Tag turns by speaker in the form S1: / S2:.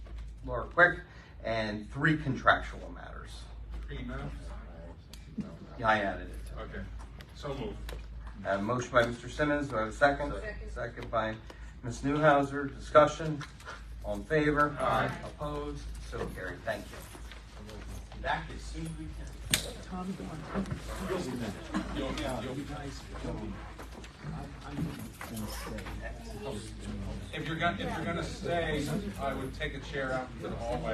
S1: Laura Quick, and three contractual matters.
S2: Three minutes?
S1: Yeah, I added it. to it.
S2: Okay, so move.
S1: Uh, motion by Mr. Simmons, do I have a second?
S3: Second.
S1: by Ms. Newhouser, discussion, all in favor?
S2: Aye.
S1: Opposed, so carried, thank you.
S4: Back as soon as we can.
S2: You'll, you'll, if you're gonna, if you're gonna stay, I would take a chair out to the hallway.